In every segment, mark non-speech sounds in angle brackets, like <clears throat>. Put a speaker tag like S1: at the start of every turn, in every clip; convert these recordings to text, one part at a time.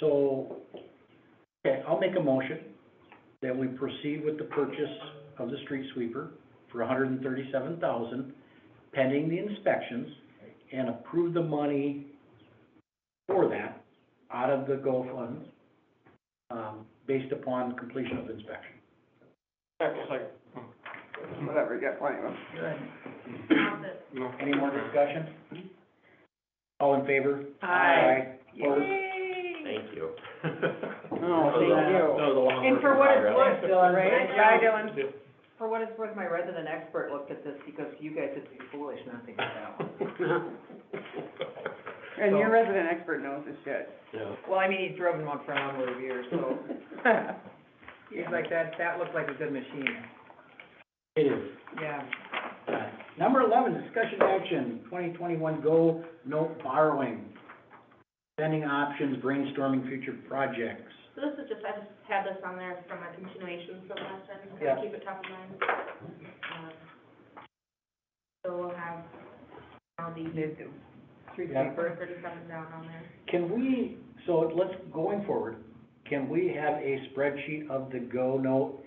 S1: So, okay, I'll make a motion that we proceed with the purchase of the street sweeper for hundred and thirty-seven thousand pending the inspections and approve the money for that out of the GO funds, um, based upon completion of inspection.
S2: Second. Whatever, you got plenty of them.
S1: Any more discussion? All in favor?
S2: Aye.
S1: Opposed?
S3: Thank
S1: <laughs>
S3: you.
S2: Oh, thank you.
S3: That was a long
S4: And for what it's worth, Dylan, right?
S2: Yeah.
S4: Sorry, Dylan. For what it's worth, my resident expert looked at this because you guys would be foolish not to get that one.
S2: And your resident expert knows this shit.
S3: <laughs> Yeah.
S4: Well, I mean, he's driven one for a number of years, so he's like, that, that looked like a good machine.
S1: It is.
S4: Yeah.
S1: Uh, Number eleven, discussion action, twenty twenty-one GO note borrowing. Spending options, brainstorming future projects.
S5: So this is just, I just had this on there from a continuation from last time, just
S1: Yeah.
S5: to keep it top of mind. Um, So we'll have now the
S4: Did do. Street
S1: Yeah.
S4: sweeper.
S5: first thirty-seven down on there.
S1: Can we, so let's, going forward, can we have a spreadsheet of the GO note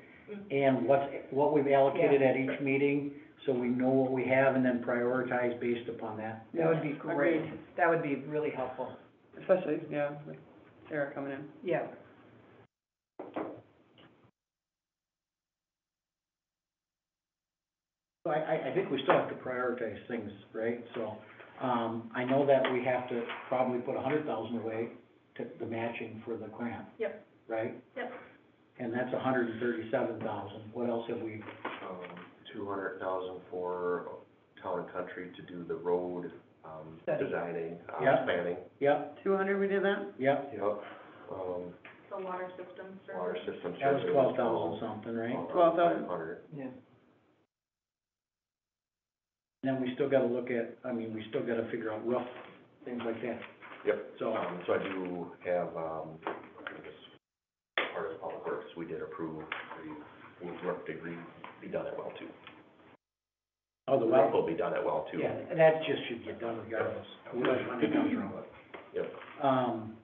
S1: and what's, what we've allocated at each meeting? So we know what we have and then prioritize based upon that?
S4: That would be
S2: Agreed.
S4: great. That would be really helpful.
S2: Especially, yeah, with Sarah coming in.
S4: Yeah.
S1: So I, I, I think we still have to prioritize things, right? So, um, I know that we have to probably put a hundred thousand away to the matching for the grant.
S5: Yep.
S1: Right?
S5: Yep.
S1: And that's a hundred and thirty-seven thousand. What else have we,
S3: um, Two hundred thousand for town and country to do the road, um,
S4: Study.
S3: designing, uh,
S1: Yeah.
S3: planning.
S1: yep,
S2: Two hundred, we did that?
S1: yep,
S3: Yep. Um,
S5: So water systems for.
S3: water system. Um,
S1: that was
S3: survey
S1: twelve thousand something, right?
S3: all around
S2: 12,000.
S3: 500.
S4: Yeah.
S1: And then we still gotta look at, I mean, we still gotta figure out rough things like that.
S3: Yep.
S1: So,
S3: Um, so I do have, um, I think it's part of public works, we did approve the wood work to re- be done at well too.
S1: oh, the well,
S3: Will be done at well too.
S1: yeah, that just should get done regardless. Who knows when it comes around.
S3: Yep.
S1: um,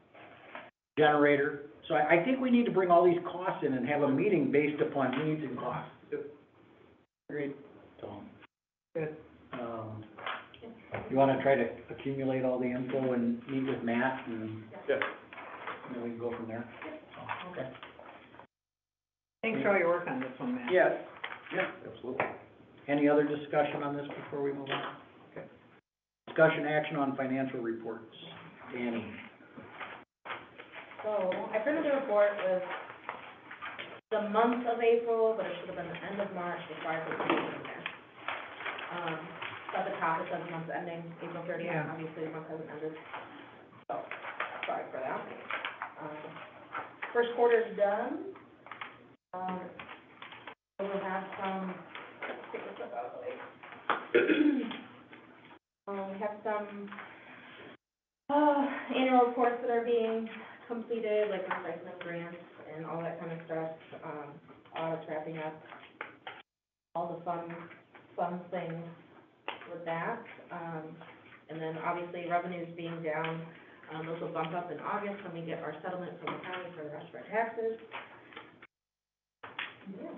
S1: generator. So I, I think we need to bring all these costs in and have a meeting based upon needs and costs,
S2: Agreed.
S1: so.
S4: Good.
S1: Um, you wanna try to accumulate all the info and meet with Matt and?
S3: Yeah.
S1: And then we can go from there. So, okay.
S4: Thanks for all your work on this one, Matt.
S2: Yes.
S3: Absolutely.
S1: Any other discussion on this before we move on?
S3: Okay.
S1: Discussion action on financial reports. Danny,
S5: So I printed a report with the month of April, but it should have been the end of March, the prior to the meeting there. Um, but the top, it says month ending April thirtieth,
S4: Yeah.
S5: obviously the month hasn't ended. So, sorry for that. Um, First quarter's done. Um, we'll have some, let's take this up out of the way. <clears throat> Um, we have some, uh, annual reports that are being completed, like recycling grants and all that kind of stuff, um, audits wrapping up, all the fun, fun things with that. Um, and then obviously revenues being down, um, those will bump up in August when we get our settlement from the county for the rest of our taxes. Yeah.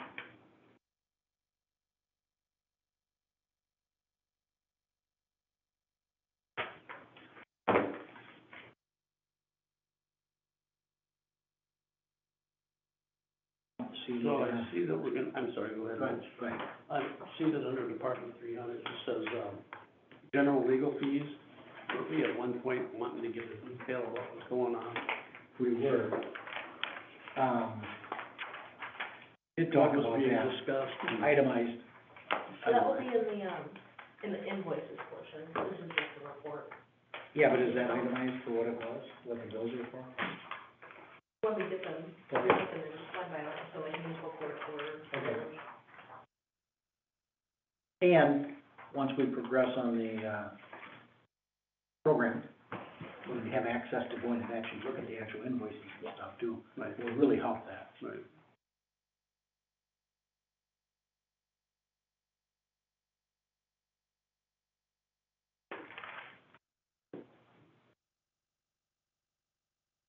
S1: see,
S6: So I
S1: uh,
S6: see that we're gonna, I'm sorry, go ahead.
S1: go ahead,
S6: Rich.
S1: go ahead.
S6: I see that under Department three hundred, it says, um, general legal fees. Were we at one point wanting to get a detail of what was going on?
S1: we were, um, did talk
S6: What
S1: about
S6: was being
S1: that, Mm-hmm.
S6: discussed?
S1: itemized,
S5: So that will be in the, um, in the invoices portion, this is just the report.
S1: yeah, but is that itemized for what it was, what the bills are for?
S5: When we get them, we
S1: Okay.
S5: get them in one by one, so like municipal court order.
S1: Okay. And, once we progress on the, uh, program, we have access to go in and actually look at the actual invoices and stuff too,
S6: Right,
S1: will really help that.
S6: right.